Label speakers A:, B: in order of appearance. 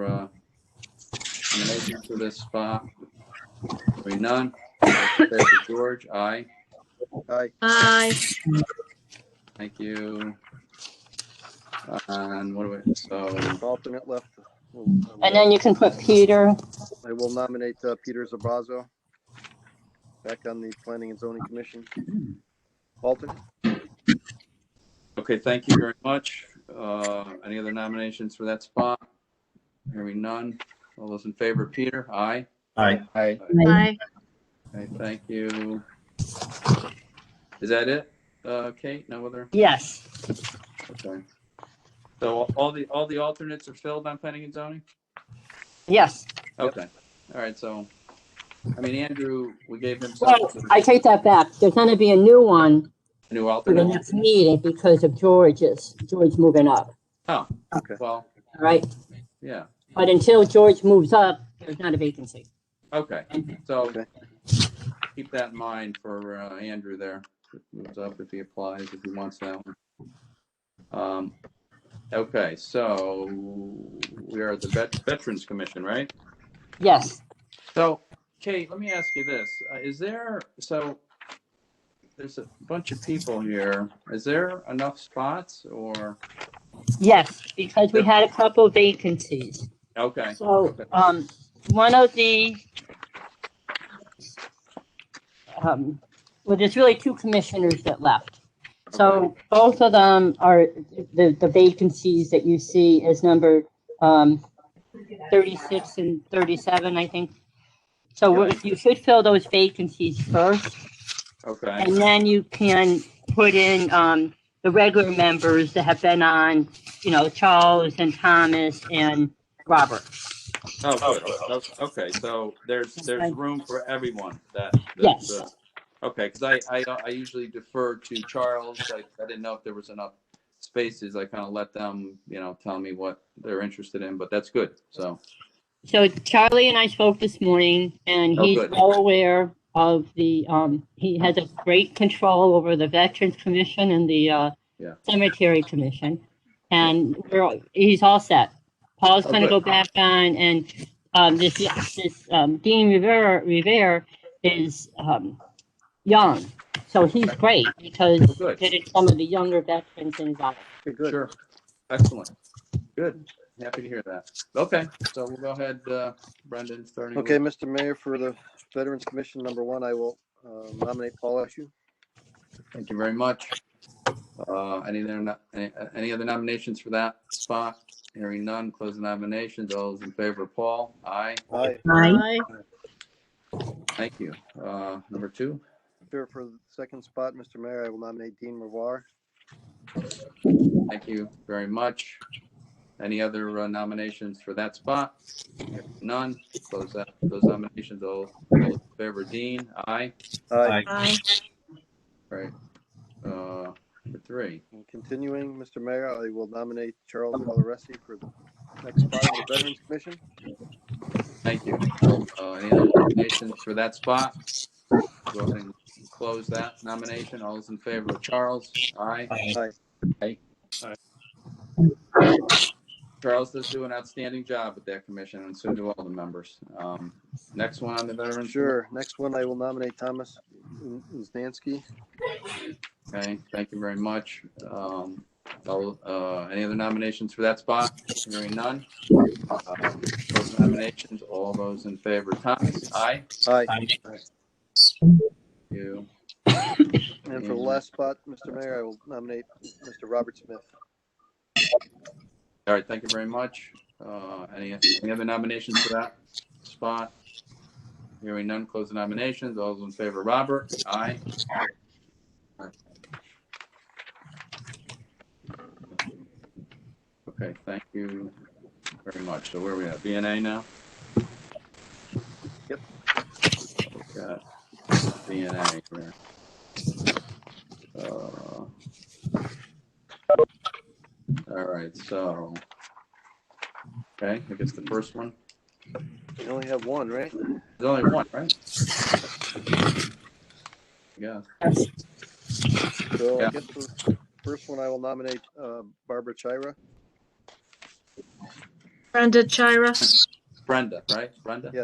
A: uh, nominations for this spot? Hearing none. all in favor, George, aye.
B: Aye.
C: Aye.
A: Thank you. And what do we, so,
B: Alternate left. um,
D: And then you can put Peter.
B: I will nominate uh, Peter Zabrazo back on the Planning and Zoning Commission. Alternate,
A: okay, thank you very much. Uh, Any other nominations for that spot? Hearing none. All those in favor, Peter, aye.
E: Aye.
B: Aye.
C: Aye.
A: Okay, thank you. Is that it, Uh, Kate? No other?
D: Yes.
A: Okay. So all the, all the alternates are filled on planning and zoning?
D: Yes.
A: Okay, all right, so, I mean, Andrew, we gave him some
D: Well, I take that back. There's going to be a new one
A: new
D: for the
A: alternate.
D: next meeting because of George's, George moving up.
A: Oh,
B: Okay.
A: well,
D: All right.
A: yeah,
D: But until George moves up, there's not a vacancy.
A: okay, so
B: Okay.
A: keep that in mind for uh, Andrew there. If he Moves up if he applies, if he wants that one. Um, okay, so we are the Vet- Veterans Commission, right?
D: Yes.
A: So, Kate, let me ask you this. Uh, Is there, so there's a bunch of people here. Is there enough spots or,
D: Yes. Because we had a couple vacancies.
A: okay,
D: So, um, one of the, um, well, there's really two commissioners that left. So both of them are, the, the vacancies that you see is numbered, um, thirty-six and thirty-seven, I think. So we- you should fill those vacancies first,
A: okay,
D: and then you can put in, um, the regular members that have been on, you know, Charles and Thomas and Robert.
A: oh, good. Oh, okay, so there's, there's room for everyone that. that-
D: Yes.
A: that- Okay, because I, I, I usually defer to Charles. I, I didn't know if there was enough spaces. I kind of let them, you know, tell me what they're interested in, but that's good, so.
D: So Charlie and I spoke this morning and
A: Oh,
D: he's
A: good.
D: well aware of the, um, he has a great control over the Veterans Commission and the, uh,
A: Yeah.
D: Cemetery Commission. And we're, all- he's all set. Paul's
A: Oh,
D: gonna go
A: good.
D: back on and, um, this, this, um, Dean Rivera, Rivera is, um, young. So he's great because
A: Oh, Good.
D: he did some of the younger veterans involved.
B: Okay, good.
A: Sure. Excellent. Good. Happy to hear that. Okay, so we'll go ahead, uh, Brendan, starting. with-
B: Okay, Mr. Mayor, for the Veterans Commission, number one, I will uh, nominate Paul Ashew.
A: Thank you very much. Uh, Any other, no- any- any other nominations for that spot? Hearing none, close the nominations. All those in favor, Paul? Aye.
B: Aye.
C: Aye.
A: Thank you. Uh, Number two,
B: Sure, for the second spot, Mr. Mayor, I will nominate Dean Revoir.
A: thank you very much. Any other uh, nominations for that spot? If None, close that, those nominations. All all in favor, Dean? Aye.
B: Aye.
C: Aye.
A: Right. Uh, Number three.
B: And Continuing, Mr. Mayor, I will nominate Charles Coloresi for the next spot on the Veterans Commission.
A: Thank you. Uh, Any other nominations for that spot? Go ahead and close that nomination. All those in favor of Charles? Aye.
B: Aye.
A: Charles does do an outstanding job with that commission and so do all the members. Um, Next one on the Veterans.
B: Sure, next one, I will nominate Thomas Uznanski.
A: Okay, thank you very much. Um, all- uh, Any other nominations for that spot? Hearing none. Uh, Close nominations. All those in favor, Thomas? Aye.
B: Aye.
A: You.
B: And for the last spot, Mr. Mayor, I will nominate Mr. Robert Smith.
A: All right, thank you very much. Uh, Any, any other nominations for that spot? Hearing none, close the nominations. All those in favor, Robert? Aye. Okay, thank you very much. So where are we at? BNA now?
B: Yep.
A: Got BNA here. Uh, All right, so. Okay, I guess the first one.
B: You only have one, right?
A: There's only one, right? Yeah,
B: So
A: Yeah.
B: I guess the first one I will nominate uh, Barbara Chira.
F: Brenda Chira.
C: Brenda, right? Brenda?
A: Yeah.